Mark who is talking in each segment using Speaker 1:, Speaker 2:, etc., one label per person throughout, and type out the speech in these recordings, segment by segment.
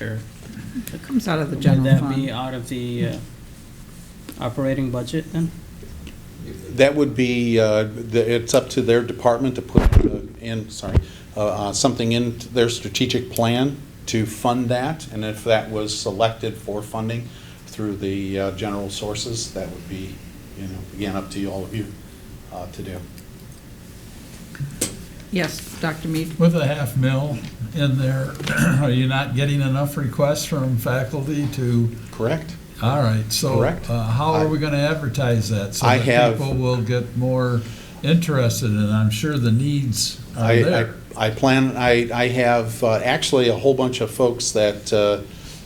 Speaker 1: Or
Speaker 2: It comes out of the
Speaker 1: would
Speaker 2: general
Speaker 1: that be
Speaker 2: fund.
Speaker 1: out of the uh, operating budget then?
Speaker 3: That would be, uh, the- it's up to their department to put uh, in, sorry, uh, uh, something in their strategic plan to fund that, and if that was selected for funding through the uh, general sources, that would be, you know, again, up to all of you uh, to do.
Speaker 2: Yes, Dr. Mead?
Speaker 4: With a half mil in there, are you not getting enough requests from faculty to,
Speaker 3: Correct?
Speaker 4: all right, so.
Speaker 3: Correct.
Speaker 4: uh, How
Speaker 3: I-
Speaker 4: are we going to advertise that?
Speaker 3: I have-
Speaker 4: So that people will get more interested, and I'm sure the needs are
Speaker 3: I,
Speaker 4: there.
Speaker 3: I, I plan, I, I have uh, actually a whole bunch of folks that uh,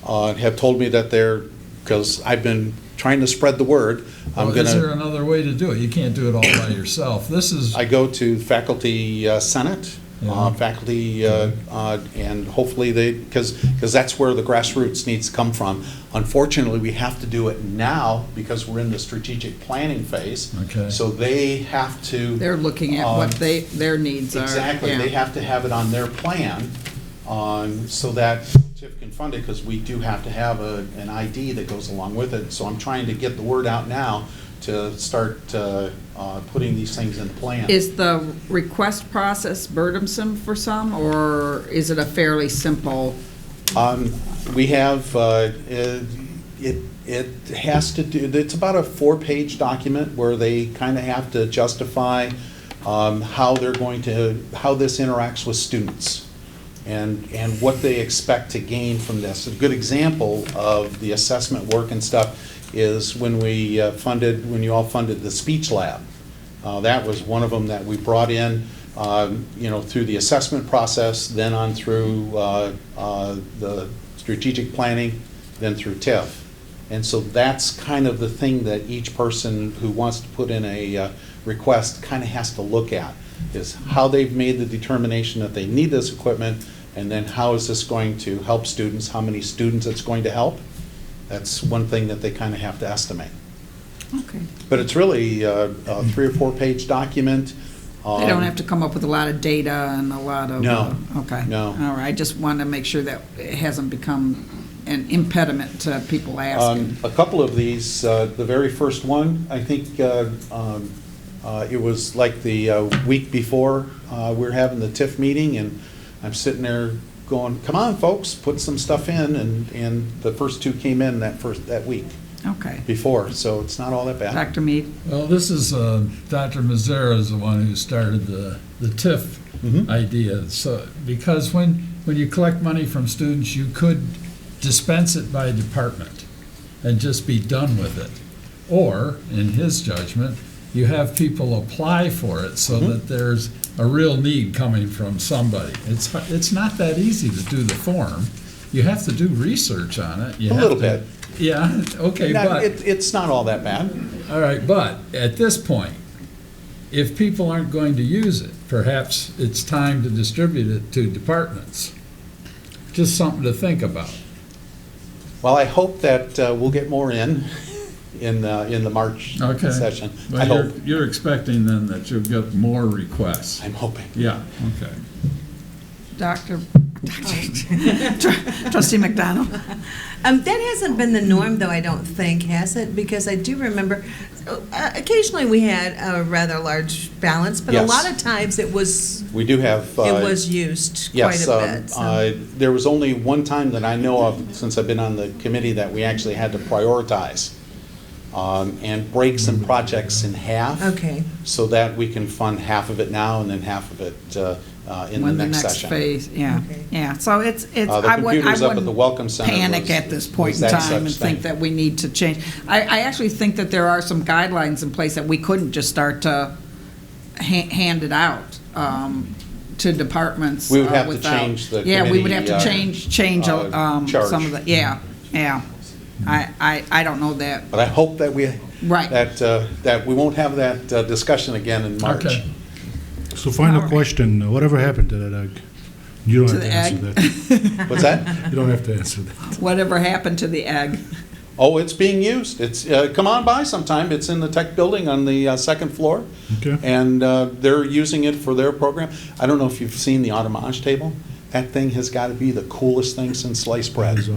Speaker 3: uh, have told me that they're, because I've been trying to spread the word. I'm
Speaker 4: Well, Oh, Is there
Speaker 3: gonna,
Speaker 4: another way to do it? You can't do it all by yourself. This is,
Speaker 3: I go to faculty uh, senate, uh,
Speaker 4: Yeah.
Speaker 3: faculty, uh, uh, and hopefully they, because, because that's where the grassroots needs to come from. Unfortunately, we have to do it now because we're in the strategic planning phase.
Speaker 4: Okay.
Speaker 3: So they have to.
Speaker 2: They're looking at what
Speaker 3: Um,
Speaker 2: they, their needs are.
Speaker 3: Exactly,
Speaker 2: yeah.
Speaker 3: they have to have it on their plan, on, so that TIF can fund it, because we do have to have a, an ID that goes along with it. So I'm trying to get the word out now to start, uh, uh, putting these things in plan.
Speaker 2: Is the request process burdensome for some, or is it a fairly simple?
Speaker 3: Um, we have, uh, it, it it has to do, it's about a four-page document where they kind of have to justify, um, how they're going to, how this interacts with students and, and what they expect to gain from this. A good example of the assessment work and stuff is when we uh, funded, when you all funded the speech lab. Uh, That was one of them that we brought in, um, you know, through the assessment process, then on through uh, uh, the strategic planning, then through TIF. And so that's kind of the thing that each person who wants to put in a uh, request kind of has to look at, is how they've made the determination that they need this equipment, and then how is this going to help students, how many students it's going to help? That's one thing that they kind of have to estimate.
Speaker 2: Okay.
Speaker 3: But it's really a, a three or four-page document. Um,
Speaker 2: They don't have to come up with a lot of data and a lot of.
Speaker 3: No,
Speaker 2: uh, Okay.
Speaker 3: no.
Speaker 2: All right, I just want to make sure that it hasn't become an impediment to people
Speaker 3: Um,
Speaker 2: asking.
Speaker 3: A couple of these, uh, the very first one, I think uh, um, uh, it was like the uh, week before uh, we were having the TIF meeting, and I'm sitting there going, come on, folks, put some stuff in, and, and the first two came in that first, that week
Speaker 2: Okay.
Speaker 3: before, so it's not all that bad.
Speaker 2: Dr. Mead?
Speaker 4: well, this is, uh, Dr. Mazzara is the one who started the, the TIF
Speaker 3: Mhm.
Speaker 4: idea. So, because when, when you collect money from students, you could dispense it by department and just be done with it. Or, in his judgment, you have people apply for it
Speaker 3: Mm-hmm.
Speaker 4: so that there's a real need coming from somebody. It's, hu- it's not that easy to do the form. You have to do research on it. You
Speaker 3: A
Speaker 4: have
Speaker 3: little
Speaker 4: to-
Speaker 3: bit.
Speaker 4: Yeah, okay,
Speaker 3: Now,
Speaker 4: but.
Speaker 3: it- It's not all that bad.
Speaker 4: All right, but at this point, if people aren't going to use it, perhaps it's time to distribute it to departments. Just something to think about.
Speaker 3: Well, I hope that uh, we'll get more in, in the, in the March session. I hope,
Speaker 4: you're expecting then that you'll get more requests.
Speaker 3: I'm hoping.
Speaker 4: Yeah, okay.
Speaker 2: Dr. Dr. Trustee McDonald?
Speaker 5: Um, that hasn't been the norm, though, I don't think, has it? Because I do remember, uh, occasionally we had a rather large balance, but
Speaker 3: Yes.
Speaker 5: a lot of times it was, it
Speaker 3: We do have. uh,
Speaker 5: was used quite
Speaker 3: Yes,
Speaker 5: a
Speaker 3: um,
Speaker 5: bit. so.
Speaker 3: uh, there was only one time that I know of, since I've been on the committee, that we actually had to prioritize um, and break some projects in half.
Speaker 5: Okay.
Speaker 3: So that we can fund half of it now and then half of it uh, uh, in the
Speaker 2: When the
Speaker 3: next
Speaker 2: next
Speaker 3: session.
Speaker 2: phase, yeah,
Speaker 5: Okay.
Speaker 2: yeah. So it's, it's,
Speaker 3: Uh, the
Speaker 2: I wouldn't, I
Speaker 3: computers up at the Welcome
Speaker 2: wouldn't
Speaker 3: Center
Speaker 2: panic
Speaker 3: was-
Speaker 2: at this point
Speaker 3: was
Speaker 2: in
Speaker 3: that
Speaker 2: time
Speaker 3: such
Speaker 2: and think
Speaker 3: thing.
Speaker 2: that we need to change. I, I actually think that there are some guidelines in place that we couldn't just start to ha- hand it out um, to departments.
Speaker 3: We would
Speaker 2: uh,
Speaker 3: have to
Speaker 2: without-
Speaker 3: change the
Speaker 2: Yeah, we would have to
Speaker 3: committee, uh,
Speaker 2: change, change uh,
Speaker 3: uh,
Speaker 2: um, some
Speaker 3: charge.
Speaker 2: of the, yeah, yeah. I, I, I don't know that,
Speaker 3: But I hope that we,
Speaker 2: Right.
Speaker 3: that, uh, that we won't have that uh, discussion again in March.
Speaker 4: Okay.
Speaker 6: So final
Speaker 2: Alright.
Speaker 6: question, whatever happened to that egg? You don't
Speaker 2: To
Speaker 6: have to
Speaker 2: the
Speaker 6: answer
Speaker 2: egg?
Speaker 6: that.
Speaker 3: What's that?
Speaker 6: You don't have to answer that.
Speaker 2: whatever happened to the egg.
Speaker 3: Oh, it's being used. It's, uh, come on by sometime. It's in the tech building on the uh, second floor.
Speaker 6: Okay.
Speaker 3: And uh, they're using it for their program. I don't know if you've seen the automage table. that thing has got to be the coolest thing since sliced bread.